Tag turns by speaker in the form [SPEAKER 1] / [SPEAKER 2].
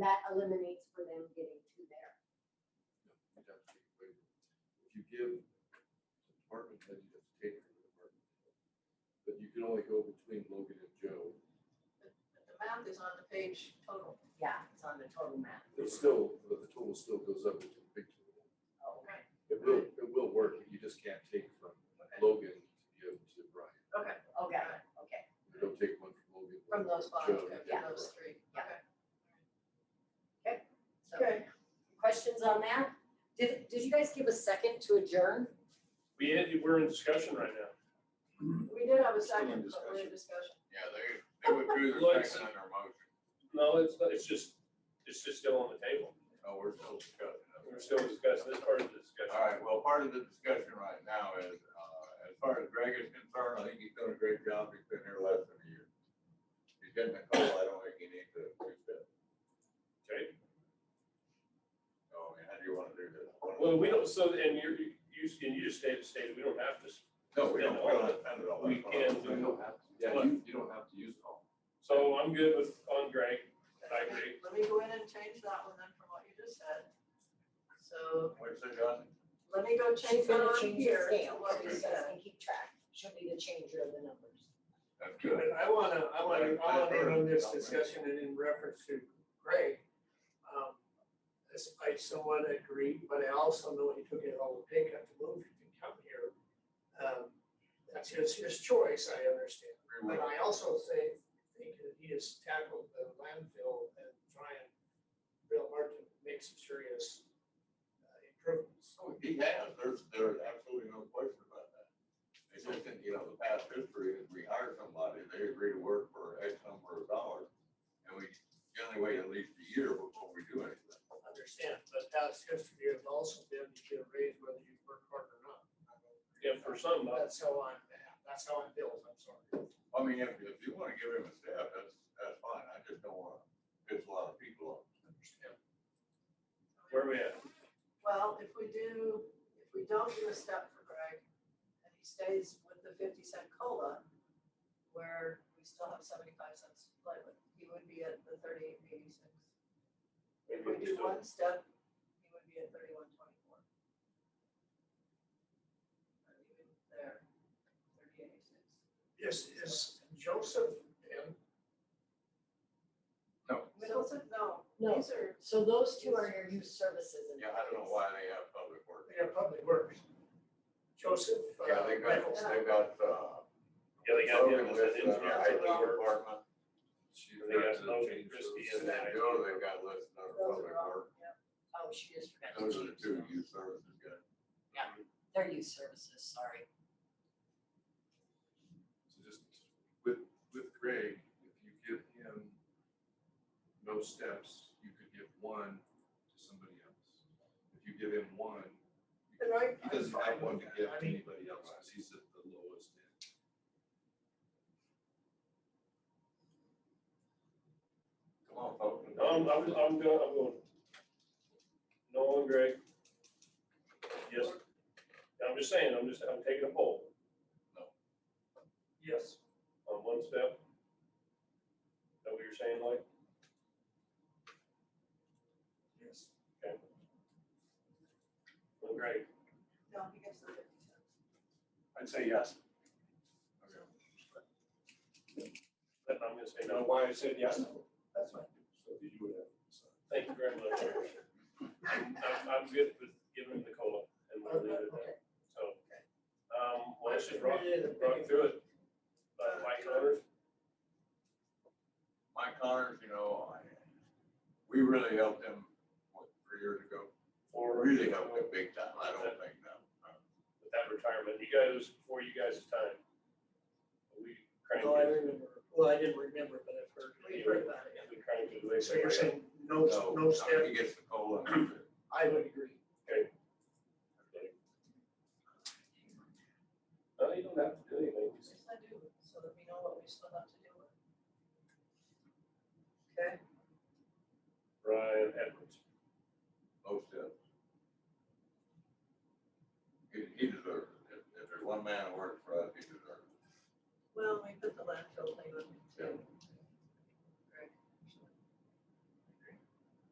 [SPEAKER 1] that eliminates for them getting to there.
[SPEAKER 2] No, You'd have to take away. If you give the department head, you have to take it from the department. head. But you can only go between Logan and Joe.
[SPEAKER 3] But the map is on the page total.
[SPEAKER 1] Yeah, it's on the total map.
[SPEAKER 2] It's still, the the total still goes up with the big total.
[SPEAKER 1] Oh,
[SPEAKER 3] Right.
[SPEAKER 2] It will, it will work, you just can't take from Logan to give to Brian.
[SPEAKER 3] Okay.
[SPEAKER 1] Okay, okay.
[SPEAKER 2] You don't take one from Logan.
[SPEAKER 3] From those five,
[SPEAKER 2] Joe,
[SPEAKER 3] okay,
[SPEAKER 2] yeah.
[SPEAKER 3] from those three.
[SPEAKER 1] Yeah.
[SPEAKER 3] Okay.
[SPEAKER 1] So questions on that? Did, did you guys give a second to adjourn?
[SPEAKER 4] We, had- we're in discussion right now.
[SPEAKER 3] We did have a
[SPEAKER 2] Still in
[SPEAKER 3] second, but we're in
[SPEAKER 2] discussion.
[SPEAKER 3] discussion.
[SPEAKER 5] Yeah, they, they withdrew
[SPEAKER 4] Like-
[SPEAKER 5] their second on their motion.
[SPEAKER 4] No, it's, not- it's just, it's just still on the table.
[SPEAKER 5] No, Oh, we're still discussing it.
[SPEAKER 4] We're still discussing this part of the discussion.
[SPEAKER 5] All right, well, part of the discussion right now is, uh, as far as Greg is concerned, I think he's done a great job. He's been here less than a year. He's getting a call. I don't think he needs to fix that.
[SPEAKER 4] Okay,
[SPEAKER 5] So, I mean, how do you want to do this?
[SPEAKER 4] well, we don't, so, and you're, you, and you just stated, stated, we don't have to,
[SPEAKER 5] No, we don't, we don't spend it all.
[SPEAKER 4] we
[SPEAKER 2] You
[SPEAKER 4] can do.
[SPEAKER 2] don't have, to. yeah, you, you don't have to use it all.
[SPEAKER 4] So I'm good with, on Greg, I agree.
[SPEAKER 3] Let me go in and change that one then from what you just said. So
[SPEAKER 5] What's it done?
[SPEAKER 3] let me go
[SPEAKER 1] She's
[SPEAKER 3] change that
[SPEAKER 1] gonna
[SPEAKER 3] on
[SPEAKER 1] change the
[SPEAKER 3] here to
[SPEAKER 1] scale,
[SPEAKER 3] what
[SPEAKER 1] so
[SPEAKER 3] you
[SPEAKER 1] you guys
[SPEAKER 3] said.
[SPEAKER 1] can keep track. She'll need a changer of the numbers.
[SPEAKER 5] That's
[SPEAKER 6] But
[SPEAKER 5] good.
[SPEAKER 6] I wanna, I wanna, I wanna end on this discussion and in reference to Greg. Um, this- I somewhat agree, but I also know he took it all the pickup to move and come here. Um, That's his, his choice, I understand. But I also say, think that he has tackled the landfill and trying real hard to make some serious uh, improvements.
[SPEAKER 5] So Oh, he has, there's, there's absolutely no question about that. It's just that, you know, the past history, is we hire somebody, they agree to work for X number of dollars. And we generally wait at least a year before we do anything.
[SPEAKER 6] Understand, but that's history has also been you get a raise whether you work hard or not.
[SPEAKER 4] Yeah, for some, but
[SPEAKER 6] That's how I'm, that's how I'm built, I'm sorry.
[SPEAKER 5] I mean, if, if you wanna give him a step, that's, that's fine, I just don't wanna piss a lot of people off.
[SPEAKER 4] where are we at?
[SPEAKER 3] Well, if we do, if we don't do a step for Greg and he stays with the fifty cent cola, where we still have seventy-five cents to play with, he would be at the thirty-eight eighty-six. If we do one step, he would be at thirty-one twenty-four. Not even there, thirty-eight eighty-six.
[SPEAKER 6] Is, is Joseph in?
[SPEAKER 5] No,
[SPEAKER 3] Middleton, no,
[SPEAKER 1] No.
[SPEAKER 3] these are,
[SPEAKER 1] So those two are your youth services and.
[SPEAKER 5] yeah, I don't know why they have public work.
[SPEAKER 6] Yeah, Public Works. Joseph. uh,
[SPEAKER 5] Yeah, they got,
[SPEAKER 6] Reynolds.
[SPEAKER 5] they got, uh.
[SPEAKER 4] Yeah, they got him
[SPEAKER 5] Logan
[SPEAKER 4] as
[SPEAKER 5] with,
[SPEAKER 4] an
[SPEAKER 5] uh,
[SPEAKER 4] engineer,
[SPEAKER 5] IT
[SPEAKER 4] so they were-
[SPEAKER 5] department,
[SPEAKER 2] She
[SPEAKER 4] They got
[SPEAKER 2] had to
[SPEAKER 4] Logan,
[SPEAKER 2] change
[SPEAKER 4] Christie,
[SPEAKER 2] those.
[SPEAKER 5] and then Joe, they've got listed under
[SPEAKER 3] those
[SPEAKER 5] public
[SPEAKER 3] are all,
[SPEAKER 5] work.
[SPEAKER 3] yeah.
[SPEAKER 1] Oh, she just forgot to
[SPEAKER 5] Those are the
[SPEAKER 1] change
[SPEAKER 5] two
[SPEAKER 1] those.
[SPEAKER 5] youth services guys.
[SPEAKER 1] They're youth services, sorry.
[SPEAKER 2] So just with, with Greg, if you give him no steps, you could give one to somebody else. If you give him one, you
[SPEAKER 6] And I-
[SPEAKER 2] could- he doesn't have one to
[SPEAKER 6] I'm fine with
[SPEAKER 2] give
[SPEAKER 6] that. I
[SPEAKER 2] to
[SPEAKER 6] mean-
[SPEAKER 2] anybody else, because he's at the lowest end.
[SPEAKER 5] Come on, folks.
[SPEAKER 4] Um, I'm, I'm going, I'm going. Nolan, Greg. Yes. I'm just saying, I'm just, I'm taking a poll
[SPEAKER 6] Yes.
[SPEAKER 4] on one step. Is that what you're saying, like?
[SPEAKER 6] Yes.
[SPEAKER 4] Well, Greg,
[SPEAKER 3] no, he gets the fifty cents.
[SPEAKER 4] I'd say yes.
[SPEAKER 5] Okay.
[SPEAKER 4] But I'm gonna say
[SPEAKER 7] You know
[SPEAKER 4] no.
[SPEAKER 7] why I said yes?
[SPEAKER 6] That's fine.
[SPEAKER 7] So that you would have. decided.
[SPEAKER 4] Thank you very much. I'm, I'm- I'm good with giving him the cola and we'll leave it at that. So, um, well, let's just rock, rock through it. Uh, Mike Connors,
[SPEAKER 5] Mike Connors, you know, I, we really helped him, what, three years ago?
[SPEAKER 4] for.
[SPEAKER 5] Really helped him big time, I don't think that.
[SPEAKER 4] with that retirement. You guys, before you guys' time. We cranked
[SPEAKER 6] No, I
[SPEAKER 4] it,
[SPEAKER 6] remember, well, I didn't remember, but I've heard.
[SPEAKER 3] We heard about it.
[SPEAKER 4] we cranked it.
[SPEAKER 6] So you're saying no,
[SPEAKER 5] No,
[SPEAKER 6] no step,
[SPEAKER 5] He gets the cola.
[SPEAKER 6] I would agree.